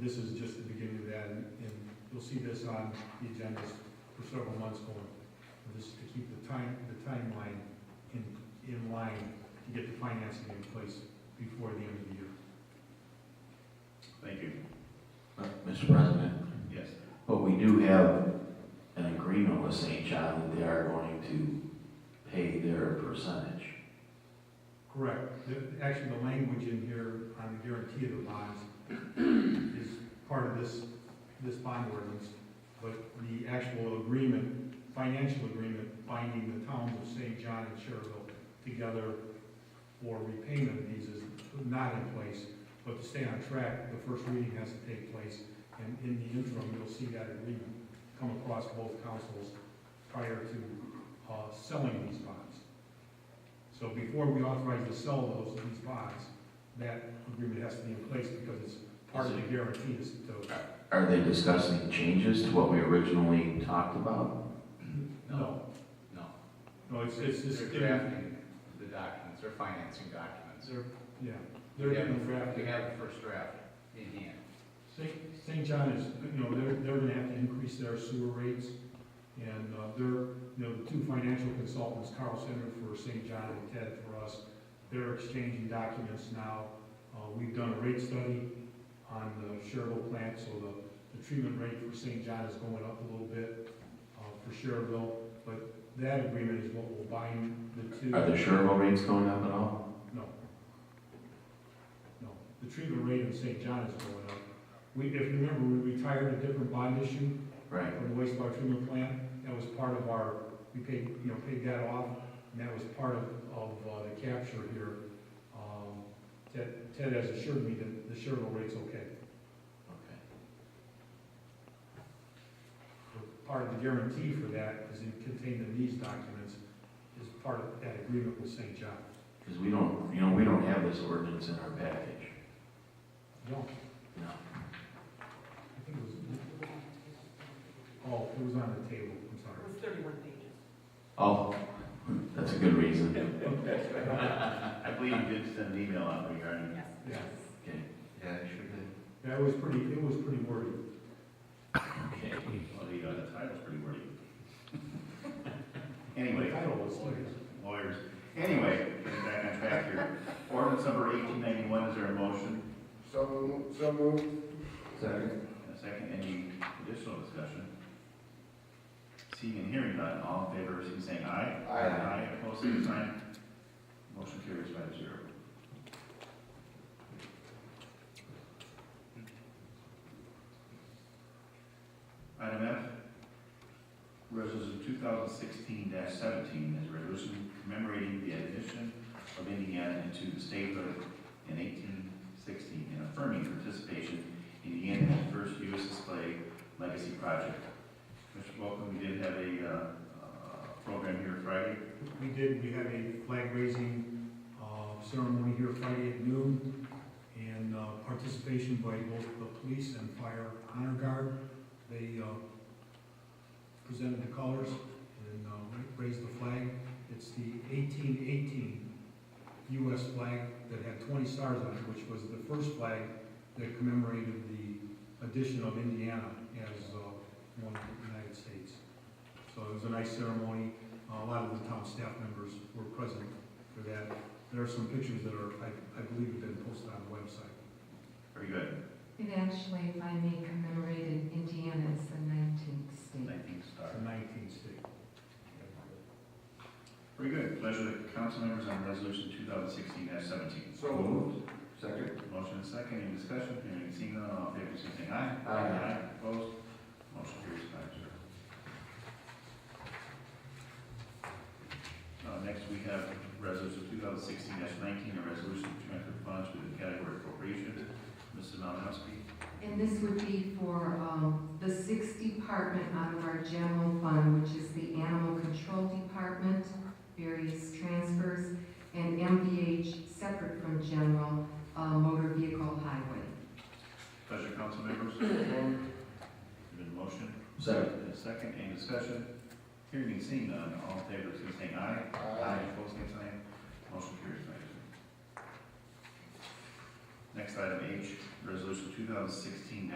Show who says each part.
Speaker 1: this is just the beginning of that, and and you'll see this on the agendas for several months going. This is to keep the time, the timeline in, in line to get the financing in place before the end of the year.
Speaker 2: Thank you.
Speaker 3: Uh, Mr. President,
Speaker 2: Yes.
Speaker 3: but we do have an agreement with St. John that they are going to pay their percentage.
Speaker 1: Correct. The- Actually, the language in here on the guarantee of the bonds is part of this, this bond ordinance, but the actual agreement, financial agreement binding the towns of St. John and Sherville together for repayment of these is not in place, but to stay on track, the first reading has to take place, and in the interim, you'll see that agreement come across both councils prior to uh, selling these bonds. So before we authorize to sell those, these bonds, that agreement has to be in place because it's part of the guarantee is to,
Speaker 3: Are they discussing changes to what we originally talked about?
Speaker 1: no.
Speaker 2: No.
Speaker 1: No, Oh, it's, it's, it's,
Speaker 2: They're drafting the documents, they're financing documents.
Speaker 1: they're, yeah, they're getting
Speaker 2: We
Speaker 1: drafted.
Speaker 2: have the first draft in hand.
Speaker 1: St. St. John is, you know, they're, they're gonna have to increase their sewer rates, and, uh, they're, you know, the two financial consultants, Carl Center for St. John and Ted for us, they're exchanging documents now. Uh, we've done a rate study on the Sherville plant, so the, the treatment rate for St. John is going up a little bit, uh, for Sherville, but that agreement is what will bind the two.
Speaker 3: Are the Sherwood rates going up at all?
Speaker 1: No. No, the treatment rate in St. John is going up. We, if you remember, we retired a different bond issue
Speaker 3: Right.
Speaker 1: from the wastewater treatment plant. That was part of our, we paid, you know, paid that off, and that was part of, of uh, the capture here. Um, Ted, Ted has assured me that the Sherwood rate's okay. But Part of the guarantee for that is it contained in these documents, is part of that agreement with St. John.
Speaker 3: Because we don't, you know, we don't have this ordinance in our package.
Speaker 1: No,
Speaker 3: No.
Speaker 1: I think it was, oh, it was on the table, I'm sorry.
Speaker 4: was thirty-one pages.
Speaker 3: Oh, that's a good reason.
Speaker 2: I believe you did send an email out regarding.
Speaker 4: Yes.
Speaker 1: Yeah.
Speaker 3: Okay. Yeah, I sure
Speaker 1: Yeah, it was pretty, it was pretty wordy.
Speaker 3: did. Okay.
Speaker 2: Well, the, uh, the title's pretty wordy.
Speaker 1: The
Speaker 2: Anyway.
Speaker 1: title was,
Speaker 2: Lawyers. Anyway, getting back on track here. Ordinance number eighteen ninety-one, is there a motion?
Speaker 5: So moved, so moved.
Speaker 3: Second.
Speaker 2: And a second, any additional discussion? Seeing and hearing none, all in favor, please say aye.
Speaker 5: Aye.
Speaker 2: Aye, opposed, same sign. Motion carries five zero. Item F, resolution two thousand sixteen seventeen is a resolution commemorating the admission of Indiana into the statehood in eighteen sixteen and affirming participation in the Indiana's first U.S. display legacy project. Mr. Welcome, we did have a, uh, uh, program here Friday.
Speaker 1: we did, we had a flag raising uh, ceremony here Friday at noon, and uh, participation by both the police and fire honor guard. They uh, presented the colors and uh, ra- raised the flag. It's the eighteen eighteen US flag that had twenty stars on it, which was the first flag that commemorated the addition of Indiana as uh, one of the United States. So it was a nice ceremony. A lot of the town staff members were present for that. There are some pictures that are, I, I believe, have been posted on the website.
Speaker 2: Very good.
Speaker 6: It actually, if I may, commemorated Indiana as the 19th state.
Speaker 2: Nineteen star.
Speaker 1: It's a nineteen state.
Speaker 2: Very good. Pleasure of the council members on resolution two thousand sixteen seventeen.
Speaker 5: So moved. Second.
Speaker 2: Motion and second, any discussion? Hearing seen none, all in favor, please say aye.
Speaker 5: Aye.
Speaker 2: Opposed? Motion carries five zero. Uh, next we have resolution two thousand sixteen nineteen, a resolution to transfer funds within category appropriations. Mrs. Malinowski.
Speaker 6: And this would be for um, the sixth department out of our general fund, which is the Animal Control Department, various transfers, and MVH, separate from general, uh, motor vehicle highway.
Speaker 2: Pleasure, council members. There's been a motion,
Speaker 3: Second.
Speaker 2: and a second, any discussion? Hearing and seeing none, all in favor, please say aye. Opposed, same sign. Motion carries five zero. Next item H, resolution two thousand sixteen